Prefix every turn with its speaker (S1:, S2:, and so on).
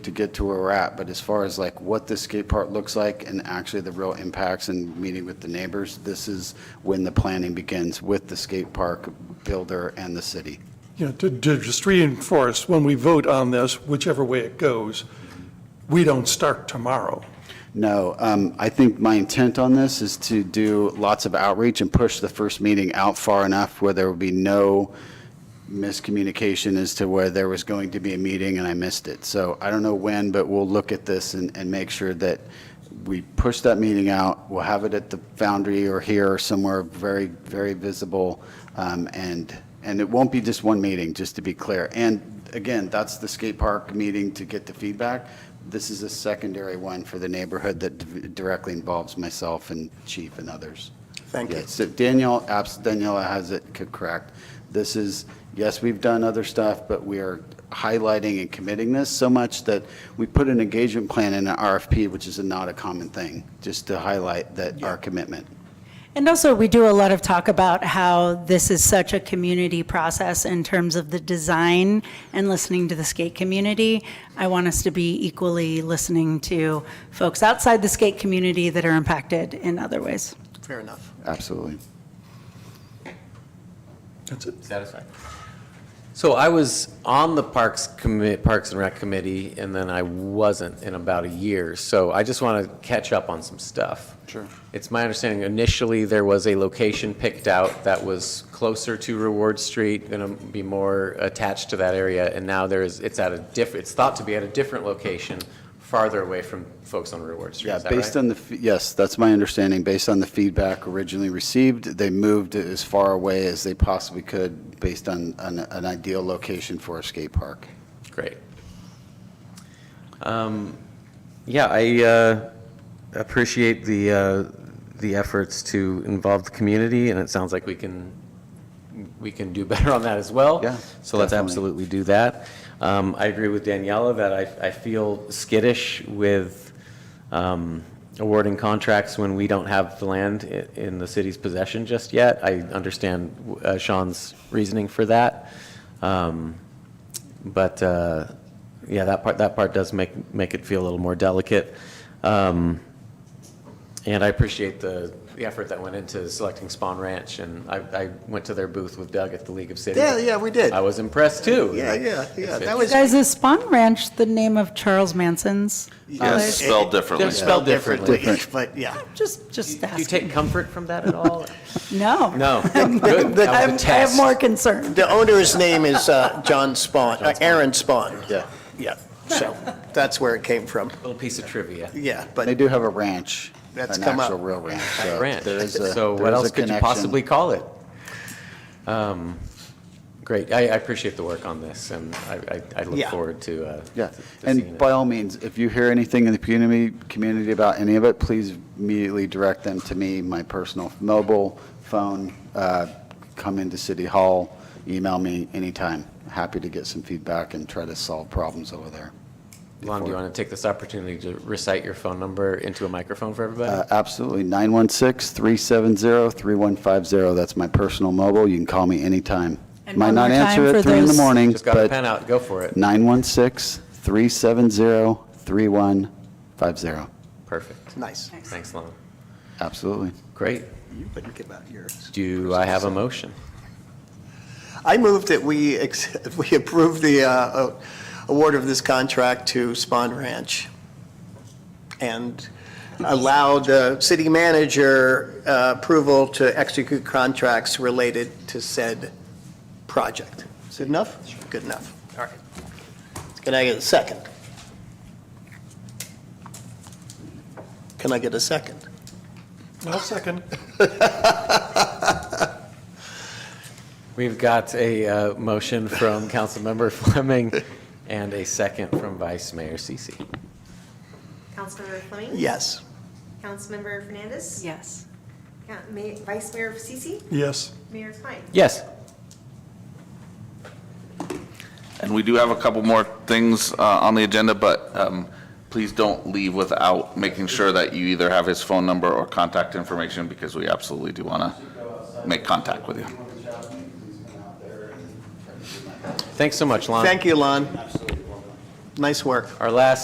S1: to get to where we're at, but as far as like what the skate park looks like and actually the real impacts and meeting with the neighbors, this is when the planning begins with the skate park builder and the city.
S2: You know, to, to just reinforce, when we vote on this, whichever way it goes, we don't start tomorrow.
S1: No, um, I think my intent on this is to do lots of outreach and push the first meeting out far enough where there will be no miscommunication as to where there was going to be a meeting and I missed it. So I don't know when, but we'll look at this and, and make sure that we push that meeting out. We'll have it at the Foundry or here or somewhere very, very visible. Um, and, and it won't be just one meeting, just to be clear. And again, that's the skate park meeting to get the feedback. This is a secondary one for the neighborhood that d- directly involves myself and chief and others.
S3: Thank you.
S1: Yeah, So Danielle, abs- Daniela has it co- correct. This is, yes, we've done other stuff, but we are highlighting and committing this so much that we put an engagement plan in an RFP, which is not a common thing, just to highlight that our commitment.
S4: And also, we do a lot of talk about how this is such a community process in terms of the design and listening to the skate community. I want us to be equally listening to folks outside the skate community that are impacted in other ways.
S3: Fair enough.
S1: Absolutely.
S2: That's it.
S5: Satisfied. So I was on the Parks Commit, Parks and Rec Committee, and then I wasn't in about a year. So I just want to catch up on some stuff.
S1: Sure.
S5: It's my understanding initially there was a location picked out that was closer to Reward Street, going to be more attached to that area. And now there is, it's at a diff, it's thought to be at a different location, farther away from folks on Reward Street.
S1: Yeah,
S5: Is that right?
S1: based on the, f- yes, that's my understanding. Based on the feedback originally received, they moved it as far away as they possibly could based on an, an ideal location for a skate park.
S5: Great. Um, Yeah, I uh, appreciate the, uh, the efforts to involve the community, and it sounds like we can, we can do better on that as well.
S1: Yeah,
S5: So let's
S1: definitely.
S5: absolutely do that. Um, I agree with Daniela that I, I feel skittish with um, awarding contracts when we don't have the land i- in the city's possession just yet. I understand uh, Sean's reasoning for that. Um, but uh, yeah, that part that part does make make it feel a little more delicate. Um, and I appreciate the the effort that went into selecting Spawn Ranch, and I, I went to their booth with Doug at the League of Cities.
S3: Yeah, yeah, we did.
S5: I was impressed too.
S3: Yeah, yeah, yeah, that was-
S4: Guys, is Spawn Ranch the name of Charles Manson's?
S6: Yes,
S4: place?
S6: spelled differently.
S5: They're spelled differently.
S3: But yeah,
S4: Just, just
S5: Do you
S4: asking.
S5: take comfort from that at all?
S4: No.
S5: no. Good. That
S3: the-
S5: was a
S4: I'm- I have
S5: test.
S4: more concern.
S3: the owner's name is uh, John Spawn, uh, Aaron Spawn.
S1: Yeah.
S3: Yeah, so that's where it came from.
S5: Little piece of trivia.
S3: Yeah,
S1: They
S3: but
S1: do have a ranch, an
S3: That's come up.
S1: actual real ranch. so
S5: Ranch.
S1: there is a-
S5: So
S1: there
S5: what
S1: is a
S5: else could you
S1: connection.
S5: possibly call it? Um, Great. I I appreciate the work on this, and I- I I look
S3: Yeah.
S5: forward to uh,
S1: Yeah,
S5: to- to seeing
S1: and
S5: it.
S1: by all means, if you hear anything in the community, community about any of it, please immediately direct them to me, my personal mobile phone, uh, come into City Hall, email me anytime. Happy to get some feedback and try to solve problems over there.
S5: Lon, do you want to take this opportunity to recite your phone number into a microphone for
S1: Uh,
S5: everybody?
S1: Absolutely, 916-370-3150, that's my personal mobile, you can call me anytime.
S4: And
S1: Might
S4: one
S1: not
S4: more time
S1: answer at
S4: for
S1: 3 in the
S4: those-
S1: morning,
S5: Just got a pen
S1: but
S5: out, go for it.
S1: 916-370-3150,
S5: Perfect.
S3: nice.
S5: Thanks, Lon.
S1: absolutely.
S5: Great.
S3: You wouldn't give out yours.
S5: Do I have a motion?
S3: I move that we, ex- we approve the uh, uh, award of this contract to Spawn Ranch and allow the city manager uh, approval to execute contracts related to said project. Is it enough? Good enough. All right. Can I get a second? Can I get a second?
S2: I'll second.
S5: We've got a uh, motion from Councilmember Fleming and a second from Vice Mayor Sisi.
S7: Councilmember Fleming?
S3: Yes.
S7: Councilmember Fernandez?
S4: Yes.
S7: Coun- Ma- Vice Mayor Sisi?
S2: Yes.
S7: Mayor Klein?
S5: Yes.
S6: And we do have a couple more things uh, on the agenda, but um, please don't leave without making sure that you either have his phone number or contact information, because we absolutely do want to make contact with you.
S5: Thanks so much, Lon.
S3: Thank you, Lon.
S8: Nice work.
S3: Our last